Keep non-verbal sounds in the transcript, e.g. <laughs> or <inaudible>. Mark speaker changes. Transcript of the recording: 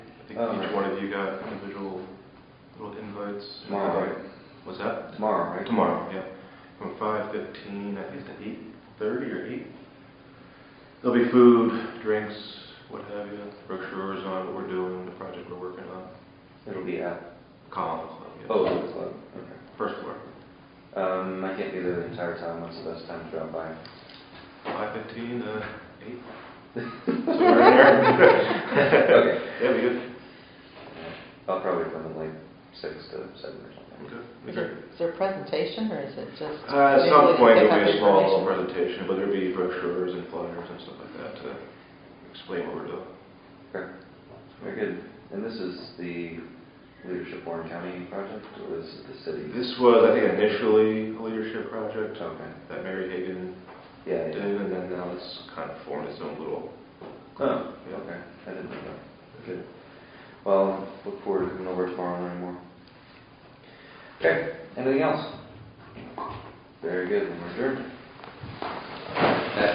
Speaker 1: each one of you got individual little invites.
Speaker 2: Tomorrow, right?
Speaker 1: What's that?
Speaker 2: Tomorrow, right?
Speaker 1: Tomorrow, yeah. From five fifteen, I think to eight thirty or eight. There'll be food, drinks, what have you, brochures on what we're doing, the project we're working on.
Speaker 2: It'll be at,
Speaker 1: Column Club, yeah.
Speaker 2: oh, it's club, okay.
Speaker 1: First floor.
Speaker 2: Um, I can't be there the entire time, when's the best time to drop by?
Speaker 1: Five fifteen, uh, eight. So we're in there.
Speaker 2: <laughs>
Speaker 1: <laughs>
Speaker 2: Okay.
Speaker 1: Yeah, we good.
Speaker 2: I'll probably come at like six to seven or
Speaker 1: We
Speaker 2: something.
Speaker 1: good. We
Speaker 3: Is
Speaker 1: good.
Speaker 3: it- is there a presentation or is it just?
Speaker 1: Uh, At some
Speaker 3: Maybe we can
Speaker 1: point,
Speaker 3: pick
Speaker 1: there'll
Speaker 3: up
Speaker 1: be a small
Speaker 3: information.
Speaker 1: presentation, but there'll be brochures and flyers and stuff like that to explain what we're doing.
Speaker 2: Okay, very good. And this is the Leadership Warren County project, or is it the city?
Speaker 1: This was, I think, initially a leadership project
Speaker 2: Okay,
Speaker 1: that Mary Hagan
Speaker 2: yeah,
Speaker 1: did,
Speaker 2: yeah.
Speaker 1: and then now it's kind of formed its own little.
Speaker 2: Oh,
Speaker 1: Yeah.
Speaker 2: okay, I didn't know that. Good. Well, look forward to coming over tomorrow and learning more. Okay, anything else? Very good, we're adjourned.